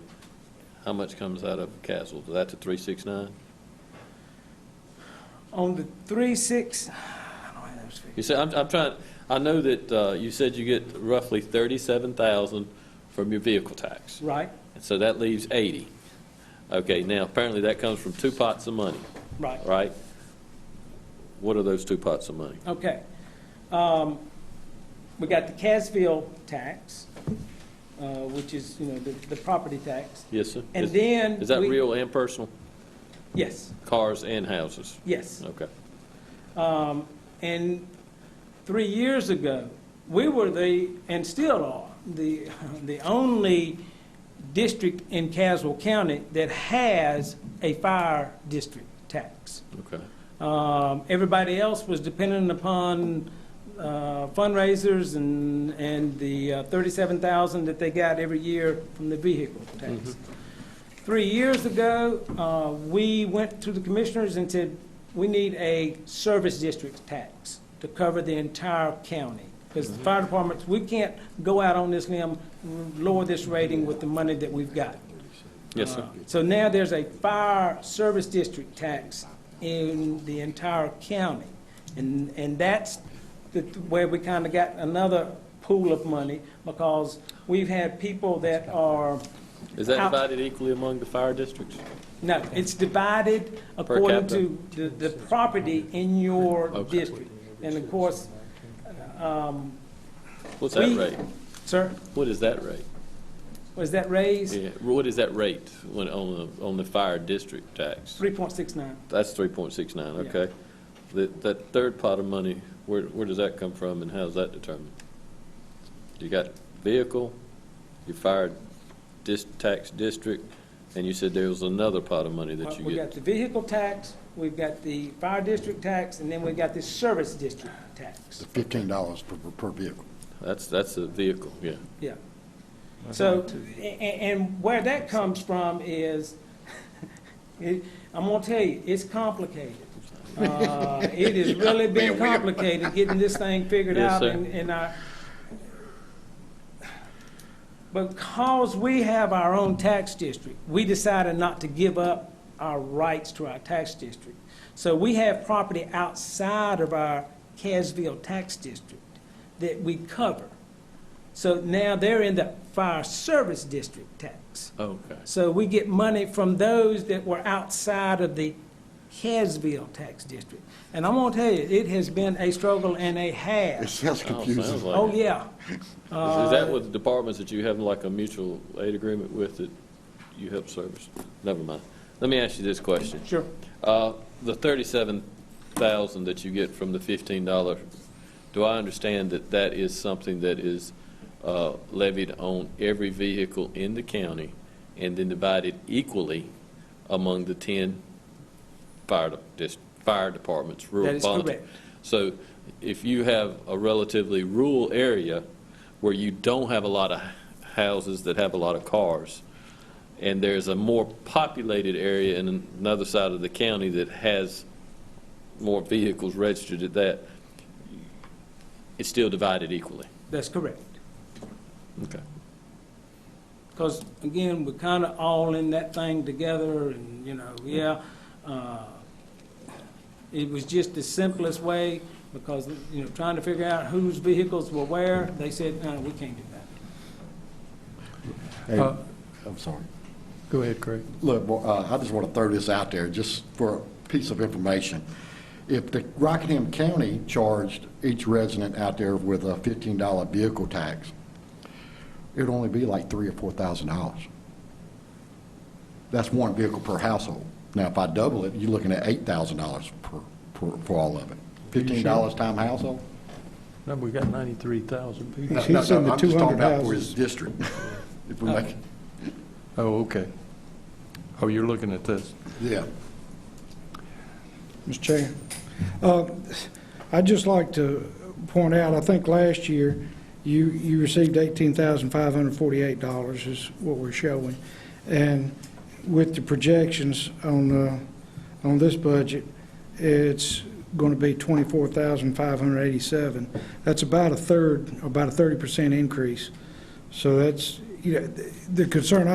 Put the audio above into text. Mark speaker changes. Speaker 1: How much comes out of Castle? That's a three six nine?
Speaker 2: On the three, six, I don't have those
Speaker 1: You
Speaker 2: figures.
Speaker 1: said, I'm, I'm trying, I know that, uh, you said you get roughly thirty-seven thousand from your vehicle tax.
Speaker 2: Right,
Speaker 1: And so that leaves eighty. Okay, now apparently that comes from two pots of money,
Speaker 2: right,
Speaker 1: right? What are those two pots of money?
Speaker 2: okay. Um, we got the Casville tax, uh, which is, you know, the, the property tax.
Speaker 1: Yes, sir?
Speaker 2: And
Speaker 1: Is-
Speaker 2: then.
Speaker 1: Is that
Speaker 2: we-
Speaker 1: real and personal?
Speaker 2: Yes,
Speaker 1: Cars and houses?
Speaker 2: yes.
Speaker 1: Okay.
Speaker 2: Um, and three years ago, we were the, and still are, the, the only district in Caswell County that has a fire district tax.
Speaker 1: Okay.
Speaker 2: Um, everybody else was dependent upon uh, fundraisers and, and the uh, 37,000 that they got every year from the vehicle tax. Three years ago, uh, we went to the commissioners and said, we need a service district tax to cover the entire county. Because the fire departments, we can't go out on this limb, lower this rating with the money that we've got.
Speaker 1: Yes, sir.
Speaker 2: Uh, So now there's a fire service district tax in the entire county. And, and that's the, where we kind of got another pool of money because we've had people that are,
Speaker 1: Is that
Speaker 2: how-
Speaker 1: divided equally among the fire districts?
Speaker 2: no, it's divided according
Speaker 1: capita?
Speaker 2: to the, the property in your
Speaker 1: Okay.
Speaker 2: district. And of course, um,
Speaker 1: What's that
Speaker 2: We-
Speaker 1: rate?
Speaker 2: sir,
Speaker 1: What is that rate?
Speaker 2: was that raised?
Speaker 1: Yeah, what is that rate when, on the, on the fire district tax?
Speaker 2: 3.69.
Speaker 1: That's three point six nine,
Speaker 2: Yeah.
Speaker 1: okay. That, that third pot of money, where, where does that come from and how's that determined? You got vehicle, you fired dis, tax district, and you said there was another pot of money that you
Speaker 2: We've got
Speaker 1: get.
Speaker 2: the vehicle tax, we've got the fire district tax, and then we've got the service district tax.
Speaker 3: The fifteen dollars per, per vehicle.
Speaker 1: That's, that's a vehicle, yeah.
Speaker 2: Yeah. So, a- a- and where that comes from is, it- I'm gonna tell you, it's complicated. Uh, It has really been complicated getting this thing figured
Speaker 1: Yes,
Speaker 2: out
Speaker 1: sir.
Speaker 2: and, and I, because we have our own tax district, we decided not to give up our rights to our tax district. So we have property outside of our Casville tax district that we cover. So now they're in the fire service district tax.
Speaker 1: Okay.
Speaker 2: So we get money from those that were outside of the Casville tax district. And I'm gonna tell you, it has been a struggle and a
Speaker 3: It
Speaker 2: half.
Speaker 3: sounds
Speaker 1: Oh, sounds
Speaker 3: confusing.
Speaker 1: like
Speaker 2: Oh,
Speaker 1: it.
Speaker 2: yeah.
Speaker 1: Is- Is that with the departments that you have like a mutual aid agreement with that you help service? Never mind. Let me ask you this question.
Speaker 2: Sure.
Speaker 1: Uh, The thirty-seven thousand that you get from the fifteen dollar, do I understand that that is something that is uh, levied on every vehicle in the county and then divided equally among the ten fire, de- dis- fire departments, rural
Speaker 2: That is
Speaker 1: volunteer?
Speaker 2: correct.
Speaker 1: So if you have a relatively rural area where you don't have a lot of houses that have a lot of cars, and there's a more populated area in another side of the county that has more vehicles registered at that, it's still divided equally.
Speaker 2: That's correct.
Speaker 1: Okay.
Speaker 2: Because again, we're kind of all in that thing together and, you know, yeah. uh, It was just the simplest way because, you know, trying to figure out whose vehicles were where, they said, no, we can't do that.
Speaker 3: Hey,
Speaker 4: Uh,
Speaker 3: I'm sorry.
Speaker 4: Go ahead, Craig.
Speaker 3: Look, well, uh, I just want to throw this out there, just for a piece of information. If the Rockingham County charged each resident out there with a fifteen dollar vehicle tax, it'd only be like three or four thousand dollars. That's one vehicle per household. Now, if I double it, you're looking at eight thousand dollars per, per, for all of it. Fifteen dollars time household?
Speaker 4: No, we got 93,000 people.
Speaker 3: No,
Speaker 5: He's
Speaker 3: no,
Speaker 5: in
Speaker 3: no,
Speaker 5: the
Speaker 3: I'm just
Speaker 5: 200
Speaker 3: talking about for his
Speaker 5: houses.
Speaker 3: district. If we make,
Speaker 4: Oh, okay. Oh, you're looking at this.
Speaker 3: yeah.
Speaker 5: Mr. Chair. Uh, I'd just like to point out, I think last year, you, you received $18,548 is what we're showing. And with the projections on, uh, on this budget, it's going to be 24,587. That's about a third, about a 30% increase. So that's, you know, the the concern